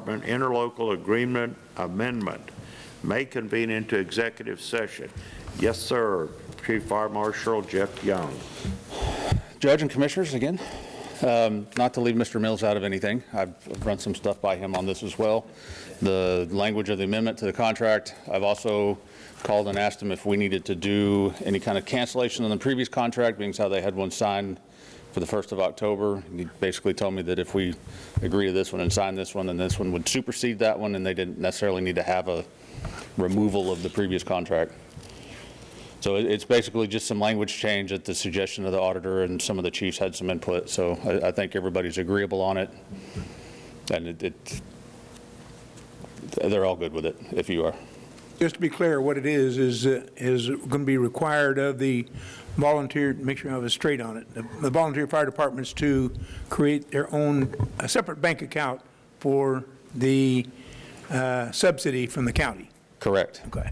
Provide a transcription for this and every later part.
Department interlocal agreement amendment may convene into executive session. Yes, sir. Chief Fire Marshal Jeff Young. Judge and Commissioners, again, um, not to leave Mr. Mills out of anything, I've run some stuff by him on this as well, the language of the amendment to the contract. I've also called and asked him if we needed to do any kind of cancellation on the previous contract, being as how they had one signed for the 1st of October. He basically told me that if we agree to this one and sign this one, then this one would supersede that one, and they didn't necessarily need to have a removal of the previous contract. So it- it's basically just some language change at the suggestion of the auditor, and some of the chiefs had some input, so I, I think everybody's agreeable on it. And it, it, they're all good with it, if you are. Just to be clear, what it is, is, uh, is going to be required of the volunteer, make sure I have it straight on it, the- the volunteer fire departments to create their own, a separate bank account for the uh, subsidy from the county. Correct. Okay.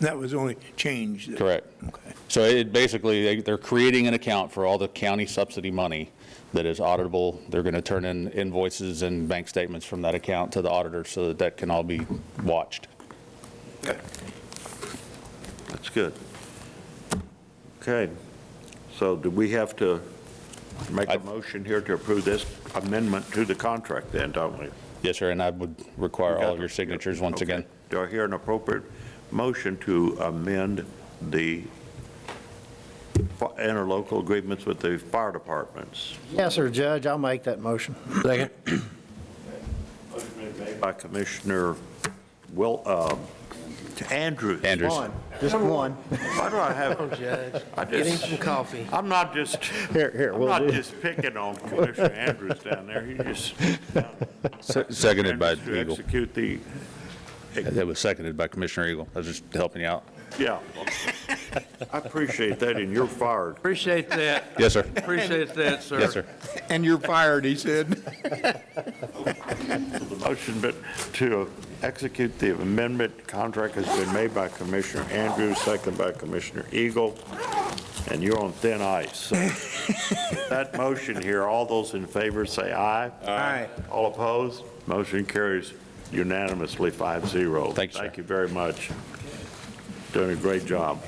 That was the only change. that- Correct. Okay. So it basically, they- they're creating an account for all the county subsidy money that is auditable. They're going to turn in invoices and bank statements from that account to the auditor so that that can all be watched. That's good. Okay. So do we have to make I- a motion here to approve this amendment to the contract then, don't we? Yes, sir, and I would require all of your Okay. signatures once Okay. again. Do I hear an appropriate motion to amend the fi- interlocal agreements with the fire departments? Yes, sir, Judge, I'll make that motion. Second. Motion been made By Commissioner Will, um, Andrews. Andrews. One, just one. Why do I have, Judge, I get him just, some coffee. I'm not just, Here, here, I'm we'll not do. just picking on Commissioner Andrews down there. He just. Se- Seconded by To Eagle. execute the, That was seconded by Commissioner Eagle. I was just helping you out. yeah. I appreciate that, and you're fired. Appreciate that, Yes, sir. appreciate that, sir. Yes, sir. And you're fired, he said. The motion but to execute the amendment contract has been made by Commissioner Andrews, second by Commissioner Eagle, and you're on thin ice. That motion here, all those in favor say aye. Aye. All opposed? Motion carries unanimously, 5-0. Thank you, sir. Thank you very much. Doing a great job.